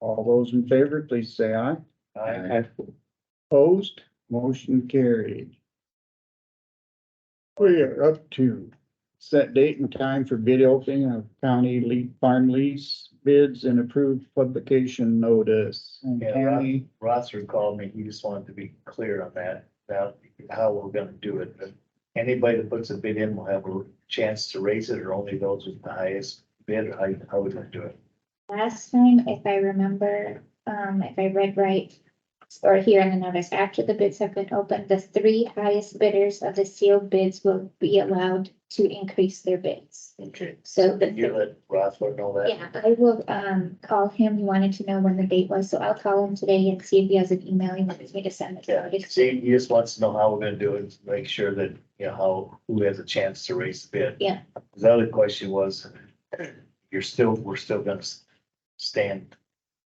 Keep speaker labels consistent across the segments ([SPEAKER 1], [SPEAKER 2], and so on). [SPEAKER 1] All those in favor, please say aye.
[SPEAKER 2] Aye.
[SPEAKER 1] Opposed, motion carried. We are up to set date and time for bid opening of county lead farm lease bids and approved publication notice. And
[SPEAKER 2] Yeah.
[SPEAKER 1] county,
[SPEAKER 2] Rosser called me, he just wanted to be clear on that, about how we're gonna do it. But Anybody that puts a bid in will have a chance to raise it, or only those with the highest bid, how, how we gonna do it?
[SPEAKER 3] Last time, if I remember, um, if I read right, or here in the notice, after the bids have been opened, the three highest bidders of the sealed bids will be allowed to increase their bids.
[SPEAKER 2] Okay.
[SPEAKER 3] So the,
[SPEAKER 2] You let Rosser know that?
[SPEAKER 3] yeah, I will, um, call him. He wanted to know when the date was, so I'll call him today and see if he has an email he wants me to send. it
[SPEAKER 2] Yeah,
[SPEAKER 3] out.
[SPEAKER 2] see, he just wants to know how we're gonna do it, make sure that, you know, how, who has a chance to raise the bid.
[SPEAKER 3] Yeah.
[SPEAKER 2] The other question was, you're still, we're still gonna s- stand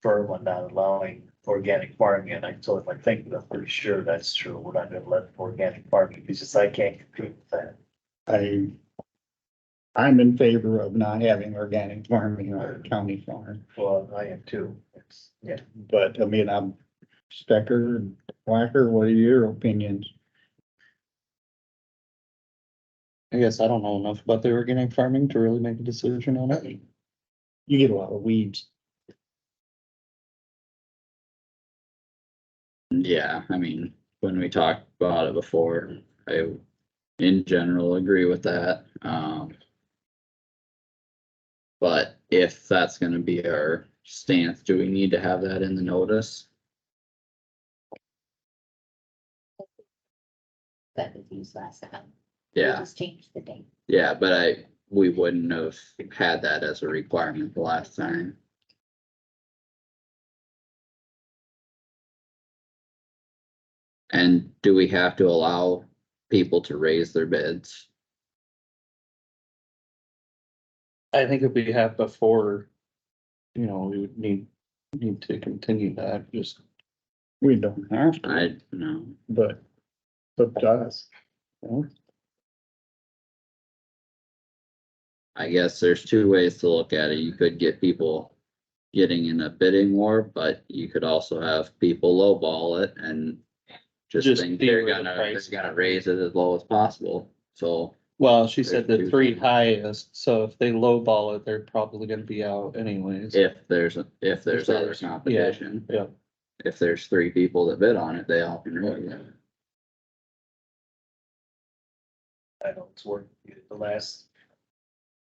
[SPEAKER 2] firm on not allowing organic farming, and I told him, I think, I'm pretty sure that's true, we're not gonna let organic farming, because just I can't compete with that.
[SPEAKER 1] I, I'm in favor of not having organic farming on our county farm,
[SPEAKER 2] Well, I am too, it's, yeah,
[SPEAKER 1] but I mean, I'm Stecker and Whacker, what are your opinions?
[SPEAKER 4] I guess I don't know enough about the organic farming to really make a decision on it.
[SPEAKER 1] You get a lot of weeds.
[SPEAKER 5] Yeah, I mean, when we talked about it before, I in general agree with that, um. But if that's gonna be our stance, do we need to have that in the notice?
[SPEAKER 3] That was used last time. We
[SPEAKER 5] Yeah,
[SPEAKER 3] Just changed the date.
[SPEAKER 5] yeah, but I, we wouldn't have had that as a requirement the last time. And do we have to allow people to raise their bids?
[SPEAKER 4] I think if we have before, you know, we would need, need to continue that, just.
[SPEAKER 1] We don't have to,
[SPEAKER 5] I, no.
[SPEAKER 1] but, but us. you know?
[SPEAKER 5] I guess there's two ways to look at it. You could get people getting in a bidding war, but you could also have people lowball it and just
[SPEAKER 4] Just
[SPEAKER 5] think
[SPEAKER 4] see
[SPEAKER 5] they're
[SPEAKER 4] where the
[SPEAKER 5] gonna, they're
[SPEAKER 4] price-
[SPEAKER 5] gonna raise it as low as possible. So,
[SPEAKER 4] Well, she said
[SPEAKER 5] There's
[SPEAKER 4] the
[SPEAKER 5] two
[SPEAKER 4] three
[SPEAKER 5] things.
[SPEAKER 4] highest, so if they lowball it, they're probably gonna be out anyways.
[SPEAKER 5] if there's, if there's other
[SPEAKER 4] there's- yeah,
[SPEAKER 5] competition.
[SPEAKER 4] yeah.
[SPEAKER 5] If there's three people that bid on it, they all can raise it.
[SPEAKER 2] I know it's worked, the last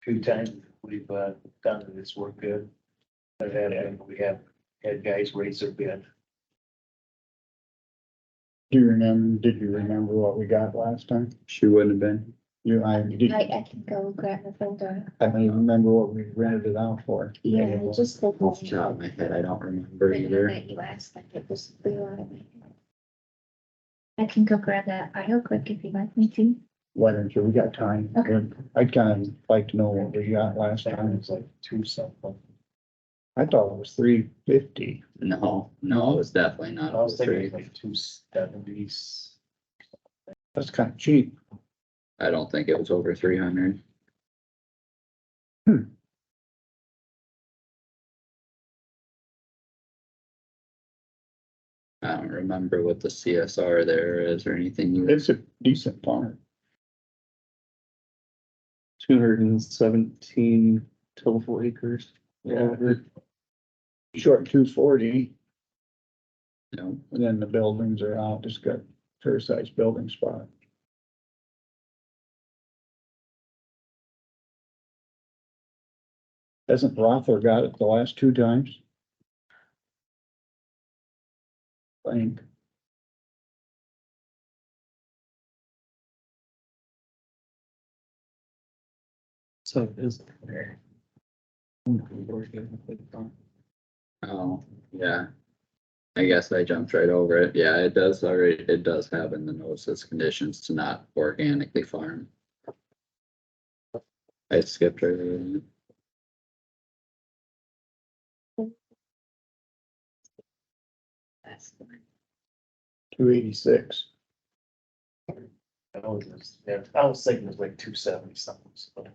[SPEAKER 2] few times we've, uh, done it, it's worked good. But then we have had guys raise their bid.
[SPEAKER 1] Do you remember, did you remember what we got last time?
[SPEAKER 5] She wouldn't have been.
[SPEAKER 1] You, I, did,
[SPEAKER 3] I, I can go grab the folder.
[SPEAKER 1] I don't even remember what we rented it out for.
[SPEAKER 3] Yeah, just. the-
[SPEAKER 5] Off the top of my head, I don't remember
[SPEAKER 3] Right,
[SPEAKER 5] either.
[SPEAKER 3] that you asked, like, it was blue on it. I can go grab that aisle quick if you'd like me to.
[SPEAKER 1] Why don't you, we got time.
[SPEAKER 3] Okay.
[SPEAKER 1] I'd kind of like to know what we got last
[SPEAKER 2] Second
[SPEAKER 1] time.
[SPEAKER 2] was like two something.
[SPEAKER 1] I thought it was three fifty.
[SPEAKER 5] No, no, it was definitely
[SPEAKER 2] I
[SPEAKER 5] not. all
[SPEAKER 2] was thinking
[SPEAKER 5] three.
[SPEAKER 2] it was like two seventies.
[SPEAKER 1] That's kind of cheap.
[SPEAKER 5] I don't think it was over three hundred. I don't remember what the CSR there is or anything. you-
[SPEAKER 1] It's a decent farm.
[SPEAKER 4] Two hundred and seventeen total acres.
[SPEAKER 1] Yeah. Short two forty,
[SPEAKER 5] No,
[SPEAKER 1] and then the buildings are out, just got fair sized building spot. Hasn't Rother got it the last two times? I think.
[SPEAKER 4] So it is.
[SPEAKER 5] oh, yeah. I guess I jumped right over it. Yeah, it does already, it does have in the notices conditions to not organically farm. I skipped right over it.
[SPEAKER 3] That's the one.
[SPEAKER 1] Two eighty-six.
[SPEAKER 2] I was, I was thinking it was like two seventy something. so